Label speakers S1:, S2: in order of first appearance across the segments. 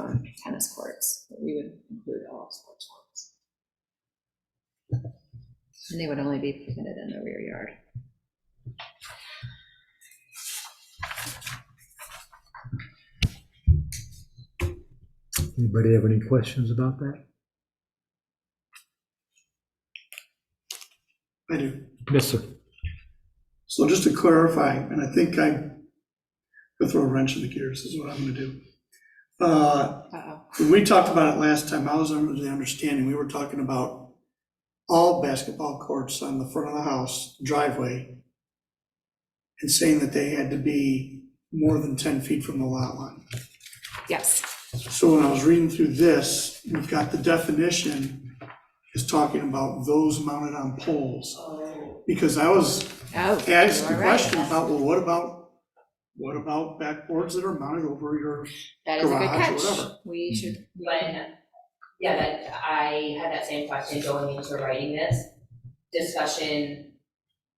S1: um,
S2: And they would only be permitted in the rear yard.
S3: Anybody have any questions about that?
S4: I do.
S3: Yes, sir.
S4: So just to clarify, and I think I could throw a wrench in the gears, is what I'm gonna do. Uh,
S2: Uh-oh.
S4: When we talked about it last time, I was under the understanding, we were talking about all basketball courts on the front of the house driveway and saying that they had to be more than 10 feet from the lot line.
S2: Yes,
S4: So when I was reading through this, we've got the definition is talking about those mounted on poles. Because I was
S2: oh.
S4: I asked the
S2: you are right.
S4: question about, well, what about, what about backboards that are mounted over your,
S2: That is a good
S4: garage or
S2: catch.
S4: whatever.
S2: We should,
S5: But, yeah, that, I had that same question going into writing this. Discussion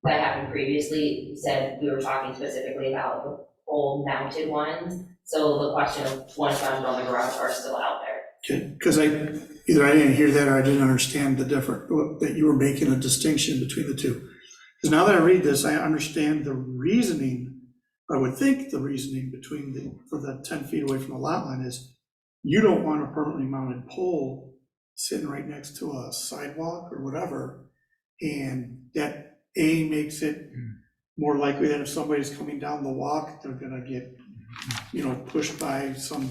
S5: that happened previously said we were talking specifically about the pole mounted ones. So the question of one mounted on the garage are still out there.
S4: because I, either I didn't hear that or I didn't understand the different, that you were making a distinction between the two. Because now that I read this, I understand the reasoning, I would think the reasoning between the, for the ten feet away from the lot line is you don't want a permanently mounted pole sitting right next to a sidewalk or whatever. And that, A, makes it more likely that if somebody's coming down the walk, they're gonna get, you know, pushed by some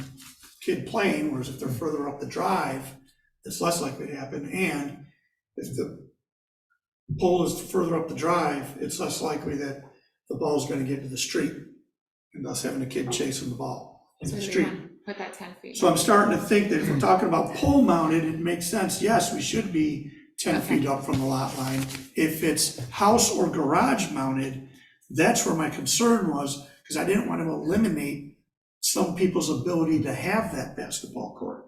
S4: kid playing, whereas if they're further up the drive, it's less likely to happen, and if the pole is further up the drive, it's less likely that the ball's gonna get to the street, and thus having a kid chasing the ball in
S1: So
S4: the
S1: we
S4: street.
S1: want- Put that ten feet.
S4: So I'm starting to think that if we're talking about pole mounted, it makes sense, yes, we should be ten feet up from the lot line. If it's house or garage mounted, that's where my concern was, because I didn't want to eliminate some people's ability to have that basketball court.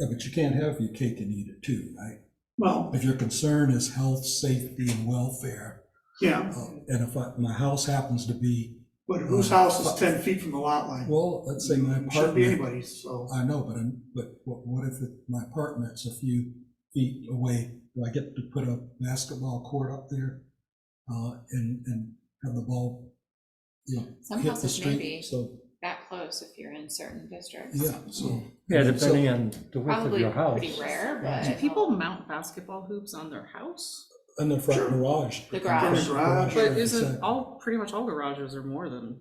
S6: Yeah, but you can't have your cake and eat it too, right?
S4: Well,
S6: If your concern is health, safety, and welfare,
S4: yeah,
S6: uh, and if I- my house happens to be,
S4: but whose house is ten feet from the lot line?
S6: well, let's say my
S4: Shouldn't be
S6: apartment.
S4: anybody's, so,
S6: I know, but, I'm- but what what if it- my apartment's a few feet away? Do I get to put a basketball court up there uh, and, and have the ball, you know,
S1: Some
S6: hit the
S1: houses may
S6: street?
S1: be
S6: So,
S1: that close if you're in certain districts.
S6: yeah, so.
S3: Yeah,
S6: so-
S3: depending on the width of
S1: Probably
S3: your house.
S1: pretty rare,
S7: Do
S1: but
S7: people mount basketball hoops on their house?
S6: In the
S4: Sure.
S6: front garage.
S1: The garage.
S4: The garage.
S6: right,
S7: But isn't
S6: exactly.
S7: all, pretty much all garages are more than,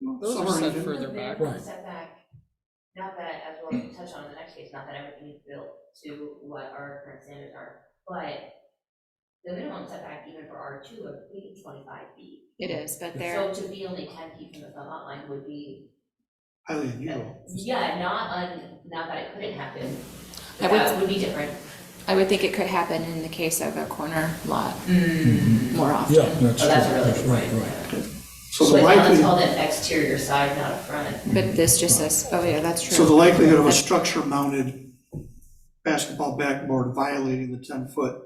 S7: those
S4: some
S7: are
S4: are
S7: set
S4: even-
S7: further back.
S6: Right.
S5: Setback, not that, as we'll touch on in the next case, not that everything is built to what our current standards are, but the minimum setback even for R two of maybe twenty-five feet.
S1: it is, but
S5: So
S1: they're,
S5: to be only ten feet from the front lot line would be,
S4: highly unusual.
S5: yeah, not un, not that it couldn't happen,
S1: I
S5: but
S1: would-
S5: that would be different.
S1: I would think it could happen in the case of a corner lot
S5: Oh,
S1: more
S6: Yeah,
S1: often.
S6: that's true.
S5: that's a really
S6: That's
S5: good
S6: Mm. right,
S5: point.
S6: right.
S4: So the
S5: But now it's
S4: likelihood,
S5: called an exterior side, not a front.
S1: But this just says, oh yeah, that's true.
S4: so the likelihood of a structure mounted basketball backboard violating the ten foot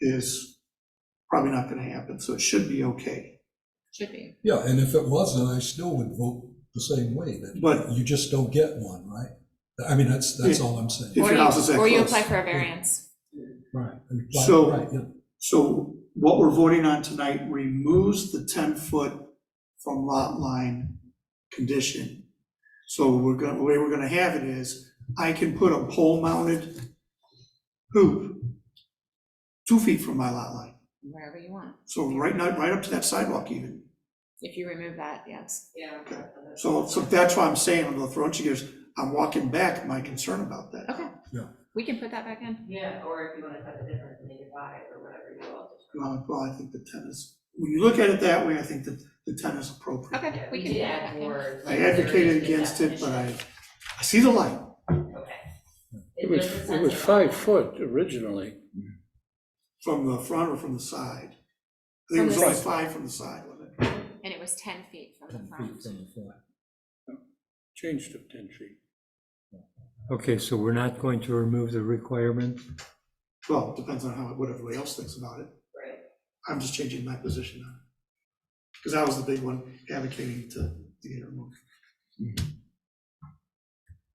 S4: is probably not gonna happen, so it should be okay.
S1: Should be.
S6: Yeah, and if it was, then I still would vote the same way, that
S4: But-
S6: you just don't get one, right? I mean, that's, that's all I'm saying.
S4: If
S1: Or
S4: your
S1: you-
S4: house is that
S1: Or you
S4: close.
S1: apply for a variance.
S6: Right. and apply-
S4: So-
S6: right, yeah.
S4: So what we're voting on tonight removes the ten foot from lot line condition. So we're gonna, the way we're gonna have it is, I can put a pole mounted hoop two feet from my lot line.
S1: Wherever you want.
S4: So right now, right up to that sidewalk even.
S1: If you remove that, yes.
S5: Yeah.
S4: So, so that's why I'm saying, I'm gonna throw it to you, I'm walking back my concern about that.
S1: Okay.
S6: Yeah.
S1: We can put that back in.
S5: Yeah, or if you wanna cut the difference, make it five or whatever you want.
S4: Well, well, I think the ten is, when you look at it that way, I think that the ten is appropriate.
S1: Okay, we can put
S5: did
S1: that
S5: add
S1: back in.
S5: more.
S4: I advocated against it, but I, I see the light.
S5: Okay.
S8: It was,
S5: doesn't
S8: it
S5: sound
S8: was
S5: so
S8: five
S5: bad.
S8: foot originally.
S4: From the front or from the side? I think it
S1: From
S4: was
S1: the
S4: only five from the side, wasn't it?
S1: And it was ten feet from the
S6: Ten
S1: front.
S6: feet from the front.
S8: Changed to ten feet.
S3: Okay, so we're not going to remove the requirement?
S4: Well, it depends on how, what everybody else thinks about it.
S5: Right.
S4: I'm just changing my position now. Because I was the big one advocating to, to get it removed.